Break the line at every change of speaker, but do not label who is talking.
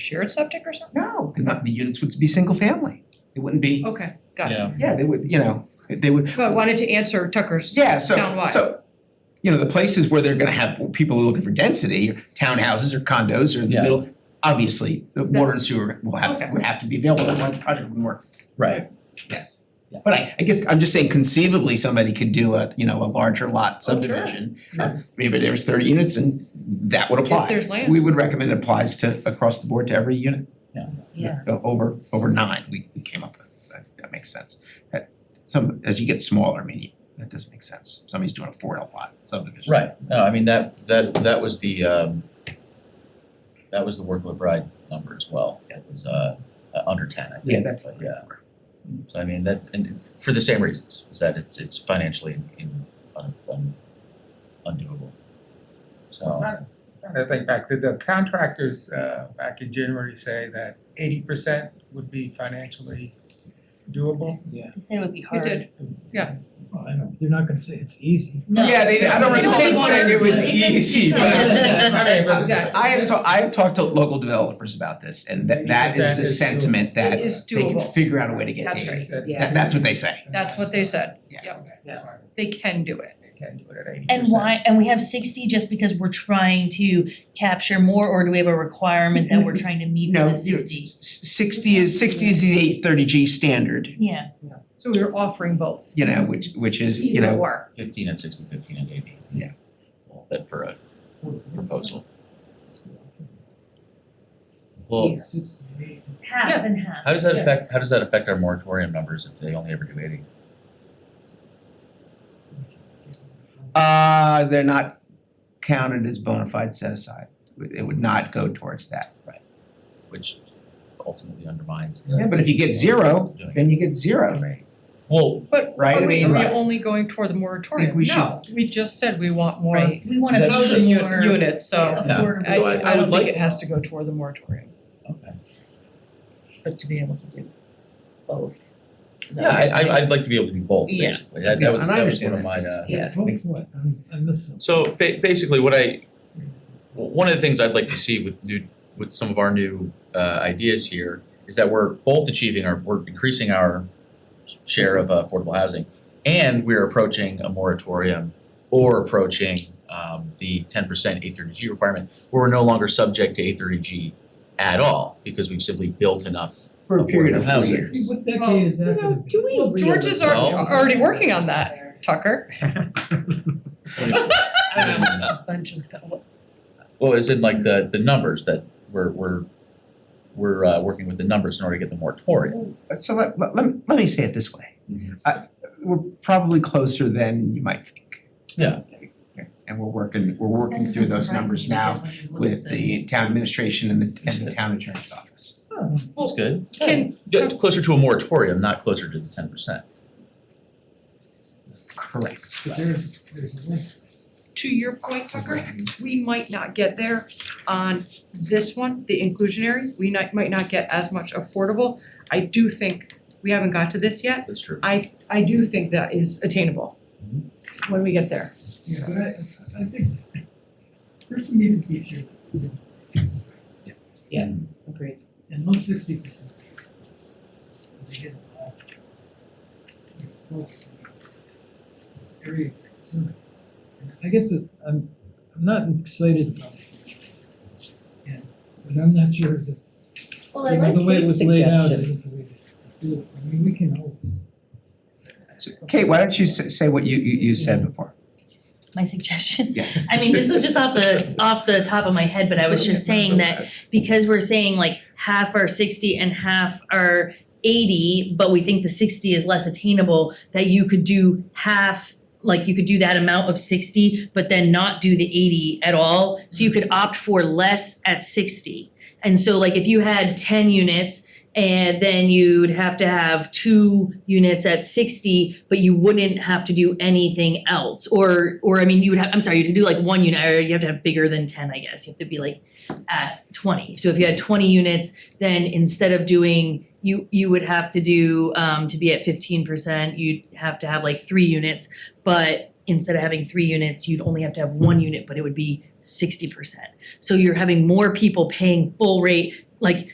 shared septic or something?
No, they're not, the units would be single family. It wouldn't be,
Okay, got it.
Yeah,
Mm-hmm. yeah, they would, you know, they would,
But I wanted to answer Tucker's
yeah, so,
Townwide.
so, you know, the places where they're gonna have, people are looking for density, townhouses or condos or the
Yeah.
middle, obviously, the water and sewer will
Okay.
have, would have to be available, otherwise the project wouldn't work,
right,
yes.
Yeah.
But I, I guess, I'm just saying conceivably, somebody could do a, you know, a larger lot
Oh, sure,
subdivision.
sure.
of Maybe there's thirty units and that would apply.
if there's land.
We would recommend it applies to, across the board to every unit.
Yeah.
Yeah.
O- Over, over nine, we, we came up with, that, that makes sense. That, some, as you get smaller, I mean, you- that doesn't make sense. Somebody's doing a four L lot subdivision.
right. No, I mean, that that that was the um that was the work LeBride number as well. It was uh uh, under ten, I think.
Yeah, that's
but
like,
yeah. So I mean, that, and for the same reasons, is that it's it's financially in- in un un undoable. So,
Right. I think back, did the contractors uh, back in January say that eighty percent would be financially doable?
They said it would be
We
hard.
did,
Well, I don't, they're not gonna say it's easy.
No.
Yeah, they, I don't
They
recall them
want
saying it
us-
was
they said
easy, but.
six months.
I mean, but-
Exactly.
I have talked, I've talked to local developers about this and that, that is
80%
the
is doable.
sentiment that
It is
they can
doable.
figure out a way to get to
That's
eighty.
right,
That-
yeah.
That, that's what they say.
that's what they said.
Okay, that's fine.
They can do it.
They can do it at eighty percent.
And why, and we have sixty just because we're trying to capture more, or do we have a requirement that we're trying to meet
No,
for the
you know, s-
sixty?
s- sixty is, sixty is the eight thirty G standard,
Yeah,
So we were offering both.
you know, which, which is, you
Either
know,
or.
fifteen and sixty, fifteen and eighty.
Yeah.
Well, that for a proposal. Well,
half and half.
how does that affect,
yes.
how does that affect our moratorium numbers if they only ever do eighty?
Uh, they're not counted as bona fide set aside. It would not go towards that.
which ultimately undermines the.
Yeah, but if you get zero,
Doing it.
then you get zero.
Well,
But
Right,
are
I
we,
mean-
are we
Right.
only going toward the moratorium?
we
No, we just said we want more
Right, we wanna
That's
build
true.
more
uni- units, so
Yeah.
affordable.
I I
I- I would
don't think
like-
it has to go toward the moratorium,
okay.
but to be able to do both. Is that
Yeah,
what you're
I
saying?
I I'd like to be able to do both,
Yeah.
basically. That
Yeah,
that was
and I
that was one
understand
of my uh.
Yeah.
Both what? I'm- I missed something.
So ba- basically, what I, w- one of the things I'd like to see with new, with some of our new uh ideas here is that we're both achieving our, we're increasing our share of uh, affordable housing and we're approaching a moratorium or approaching um the ten percent eight thirty G requirement where we're no longer subject to eight thirty G at all because we've simply built enough
For a period of four
Affordable
years.
What decade is that gonna be?
Well, George is al-
Well-
already working on that, Tucker.
A bunch of,
Well, as in like the the numbers that we're we're we're uh working with the numbers in order to get the moratorium.
So let, let, let me- let me say it this way.
Mhm.
Uh, we're probably closer than you might think.
Yeah.
And we're working, we're working through those numbers now with the town administration and the, and the town insurance office.
That's good.
Can,
Yeah, closer to a moratorium, not closer to the ten percent.
Correct.
But there, there's a link.
to your point, Tucker, we might not get there on this one, the inclusionary, we not, might not get as much affordable. I do think, we haven't got to this yet,
That's true.
I, I do think that is attainable when we get there.
Yeah, but I, I think, there's some need to be here.
Agreed.
And those sixty percent. They get all. they focus on this Area of concern. And I guess it- I'm, I'm not excited about it. And, but I'm not sure that,
well, I
you know, the way
like
it
Kate's
was laid out
suggestion.
isn't the way to do it. I mean, we can always.
So Kate, why don't you say, say what you, you, you said before?
My suggestion,
Yes.
I mean, this was just off the, off the top of my head, but I was just saying that because we're saying like half are sixty and half are eighty, but we think the sixty is less attainable, that you could do half, like you could do that amount of sixty, but then not do the eighty at all, so you could opt for less at sixty. And so like if you had ten units and then you'd have to have two units at sixty, but you wouldn't have to do anything else, or or I mean, you would have, I'm sorry, you could do like one unit, or you have to have bigger than ten, I guess, you have to be like at twenty. So if you had twenty units, then instead of doing, you you would have to do um to be at fifteen percent, you'd have to have like three units. But instead of having three units, you'd only have to have one unit, but it would be sixty percent. So you're having more people paying full rate like